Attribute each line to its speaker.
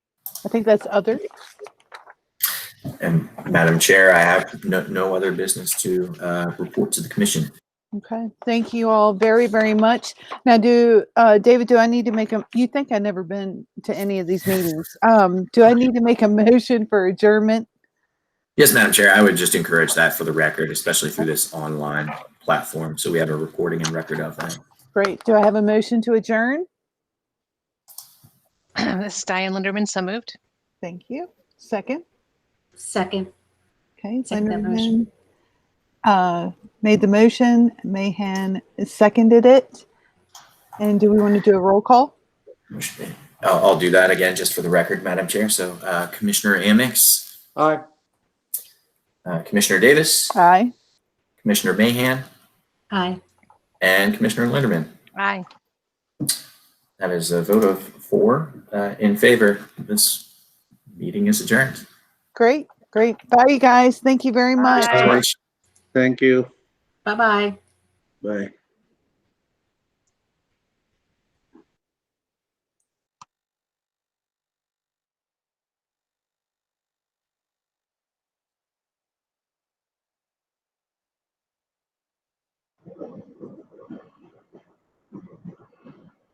Speaker 1: I think that's other.
Speaker 2: And Madam Chair, I have no, no other business to uh, report to the commission.
Speaker 1: Okay, thank you all very, very much. Now, do, uh, David, do I need to make a, you think I've never been to any of these meetings? Um, do I need to make a motion for adjournment?
Speaker 2: Yes, Madam Chair, I would just encourage that for the record, especially through this online platform. So we have a recording and record of that.
Speaker 1: Great. Do I have a motion to adjourn?
Speaker 3: This is Diane Linderman, so moved.
Speaker 1: Thank you. Second.
Speaker 4: Second,
Speaker 1: Okay.
Speaker 4: Second that motion.
Speaker 1: Linderman, Uh, made the motion, Mahan seconded it. And do we want to do a roll call?
Speaker 2: Motion- I'll, I'll do that again, just for the record, Madam Chair. So uh, Commissioner Amix,
Speaker 5: Aye.
Speaker 2: uh, Commissioner Davis,
Speaker 1: Aye.
Speaker 2: Commissioner Mahan,
Speaker 4: aye.
Speaker 2: and Commissioner Linderman.
Speaker 3: Aye.
Speaker 2: That is a vote of four uh, in favor. This meeting is adjourned.
Speaker 1: Great, great. Bye, you guys. Thank you very much.
Speaker 3: Aye.
Speaker 5: Thank you.
Speaker 4: Bye-bye.
Speaker 5: Bye.